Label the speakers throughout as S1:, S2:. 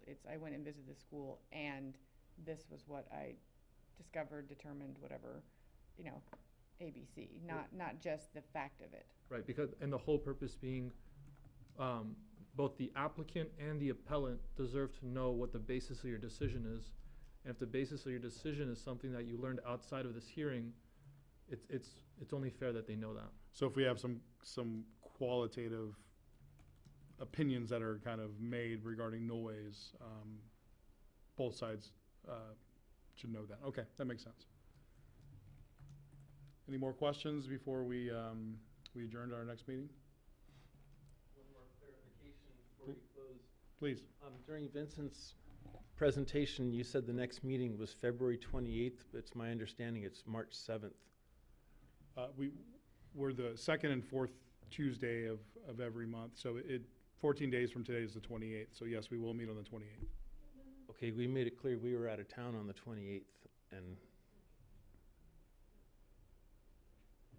S1: visits. I went and visited the school and this was what I discovered, determined, whatever, you know, ABC, not, not just the fact of it.
S2: Right, because, and the whole purpose being, um, both the applicant and the appellant deserve to know what the basis of your decision is. And if the basis of your decision is something that you learned outside of this hearing, it's, it's, it's only fair that they know that.
S3: So if we have some, some qualitative opinions that are kind of made regarding noise, um, both sides, uh, should know that. Okay, that makes sense. Any more questions before we, um, we adjourn to our next meeting?
S4: One more clarification before we close.
S3: Please.
S4: Um, During Vincent's presentation, you said the next meeting was February 28th, but it's my understanding it's March 7th.
S3: Uh, we, we're the second and fourth Tuesday of, of every month, so it, fourteen days from today is the twenty-eighth, so yes, we will meet on the twenty-eighth.
S4: Okay, we made it clear we were out of town on the 28th, and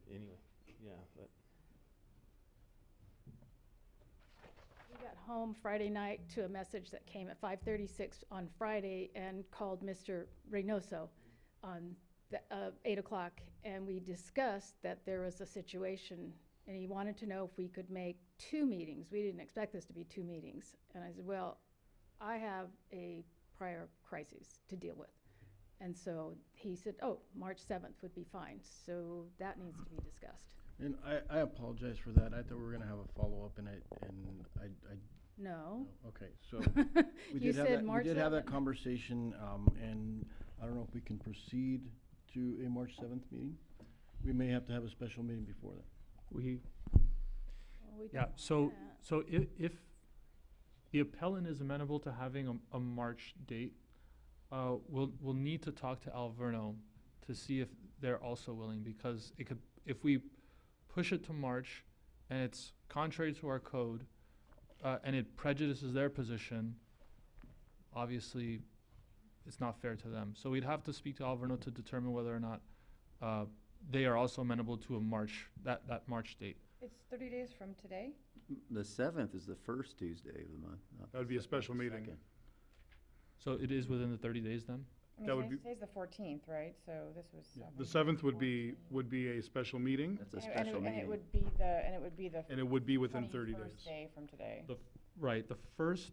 S4: anyway, yeah, but
S5: We got home Friday night to a message that came at five thirty-six on Friday and called Mr. Reynoso on the, uh, eight o'clock, and we discussed that there was a situation, and he wanted to know if we could make two meetings. We didn't expect this to be two meetings, and I said, well, I have a prior crisis to deal with. And so he said, oh, March seventh would be fine, so that needs to be discussed.
S6: And I, I apologize for that. I thought we were gonna have a follow-up and I, and I, I,
S5: No?
S6: no. okay, so.
S5: You
S6: we did have
S5: said
S6: that-
S5: March
S6: We did have that
S5: 7th.
S6: conversation, um, and I don't know if we can proceed to a March seventh meeting. We may have to have a special meeting before that.
S2: We,
S5: Well, we
S2: Yeah,
S5: don't
S2: so,
S5: want that.
S2: so if, if the appellant is amenable to having a, a March date, uh, we'll, we'll need to talk to Alverno to see if they're also willing, because it could, if we push it to March and it's contrary to our code, uh, and it prejudices their position, obviously, it's not fair to them. So we'd have to speak to Alverno to determine whether or not, uh, they are also amenable to a March, that, that March date.
S1: It's thirty days from today?
S7: The seventh is the first Tuesday of the month. not
S3: That would be a special meeting.
S6: Second.
S2: So it is within the thirty days then?
S1: I
S3: That
S1: mean,
S3: would be-
S1: today's, today's the fourteenth, right? So this was.
S3: Yeah,
S1: seven,
S3: The seventh would be,
S1: 14.
S3: would be a special meeting,
S7: That's a
S1: And it- and it-
S7: special meeting.
S1: And it would be the, and it would be the.
S3: and it would be within thirty
S1: 21st
S3: days.
S1: day from today.
S2: The, f- right, the first,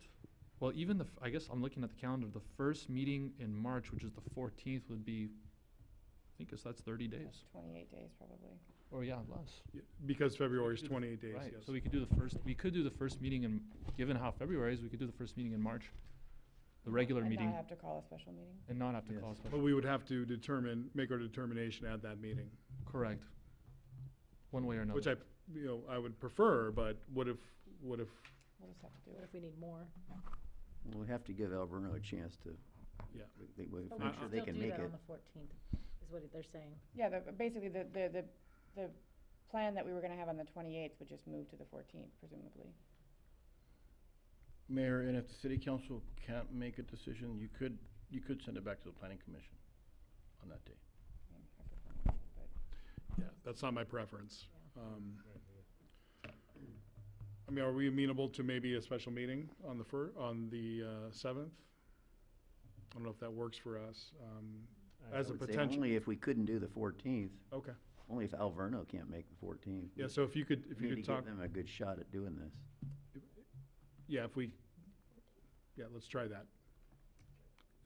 S2: well, even the, f- I guess I'm looking at the calendar, the first meeting in March, which is the fourteenth, would be, I think it's, that's thirty days,
S1: Twenty-eight days, probably.
S2: or Oh, yeah, less.
S3: Yeah, Because February is
S2: do the-
S3: twenty-eight days,
S2: Right,
S3: yes.
S2: so we could do the first, we could do the first meeting in, given how February is, we could do the first meeting in March, the regular
S1: And
S2: meeting,
S1: not have to call a special meeting?
S2: and not have to
S7: Yes.
S2: call a
S3: But
S2: special,
S3: we would have to determine, make our determination at that meeting,
S2: correct. One way or another.
S3: which I, you know, I would prefer, but what if, what if,
S1: We'll just have to do
S5: What
S1: it.
S5: if we need more?
S7: We have to give Alverno a chance to,
S3: yeah.
S7: we- we- we-
S3: But we
S7: make
S3: could
S7: sure they can make it.
S8: fourteenth, is what they're saying.
S1: Yeah, the, basically, the, the, the, the plan that we were gonna have on the twenty-eighth would just move to the fourteenth presumably.
S6: Mayor, and if the city council can't make a decision, you could, you could send it back to the planning commission on that day.
S1: I mean, I prefer not, but-
S3: Yeah, that's not my preference. Um, I mean, are we amenable to maybe a special meeting on the fir, on the uh, seventh? I don't know if that works for us. um,
S4: I-
S3: As
S7: I
S3: a
S7: would say
S3: potential,
S7: Only if we couldn't do the fourteenth,
S3: okay.
S7: only if Alverno can't make the fourteenth.
S3: Yeah, so if you could, if you could
S7: Need to give
S3: talk,
S7: them a good shot at doing this.
S3: yeah, if we, yeah, let's try that.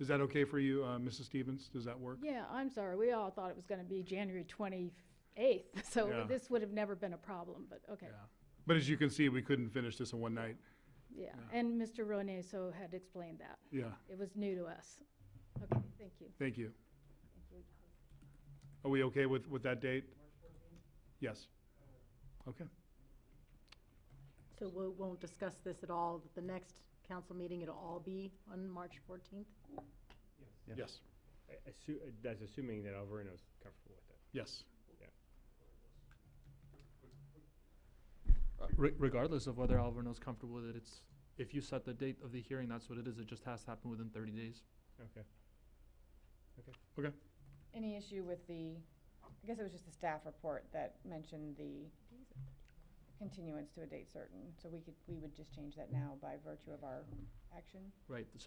S3: Is that okay for you, uh, Mrs. Stevens? Does that work?
S5: Yeah, I'm sorry, we all thought it was gonna be January twenty-eighth,
S3: Yeah.
S5: so this would have never been a problem, but, okay,
S3: Yeah. But as you can see, we couldn't finish this in one night.
S5: yeah. And Mr. Rone so had explained that,
S3: Yeah,
S5: it was new to us. Okay, thank you.
S3: thank you. Are we okay with, with that date? Yes. Okay.
S8: So we won't discuss this at all, the next council meeting, it'll all be on March fourteenth?
S7: Yes.
S3: Yes,
S9: I- assu- uh, that's assuming that Alverno's comfortable with it.
S3: yes.
S2: Uh, Re- regardless of whether Alverno's comfortable with it, it's, if you set the date of the hearing, that's what it is, it just has to happen within thirty days.
S9: Okay.
S1: Any issue with the, I guess it was just the staff report that mentioned the continuance to a date certain. So we could, we would just change that now by virtue of our action?
S2: Right, so